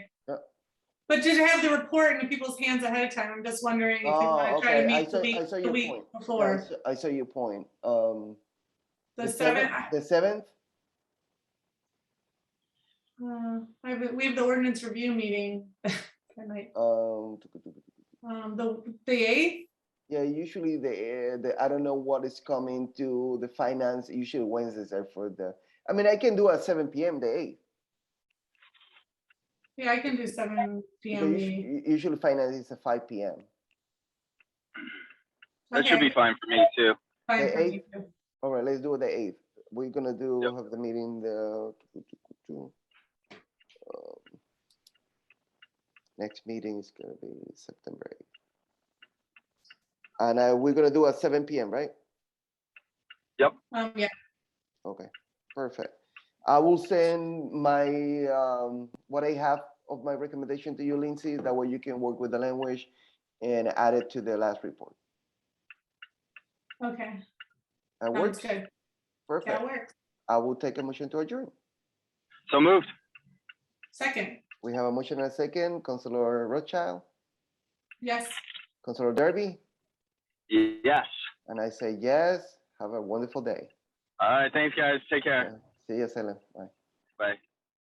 But did have the report in people's hands ahead of time. I'm just wondering if you Oh, want to try okay. to I meet the saw, I week, saw the your week point. Yeah, I before. saw- I saw your point. Um, The seventh, I- The seventh? uh, I have- we have the ordinance review meeting. that night. Um, Um, the, the eighth, yeah, usually the, the, I don't know what is coming to the finance, usually Wednesdays are for the, I mean, I can do at seven PM, the eighth. yeah, I can do seven because PM usu- meeting. u- Usually finance is at five PM. That should Okay, be fine for me too. fine the for me too. All right, let's do the eighth. We're gonna do, Yep. have the meeting the. um, Next meeting is gonna be September eighth. And uh, we're gonna do at seven PM, right? Um, yeah, Okay, perfect. I will send my, um, what I have of my recommendation to you, Lindsay, that way you can work with the language and add it to the last report. okay, That sounds works, good. That perfect. works. I will take a motion to adjourn. So moved. Second, We have a motion and a second, Counselor Rothschild, yes, Counselor Derby, Yes. and I say yes. Have a wonderful day. All right. Thanks, guys. Take care. See you, Salem. Bye. Bye.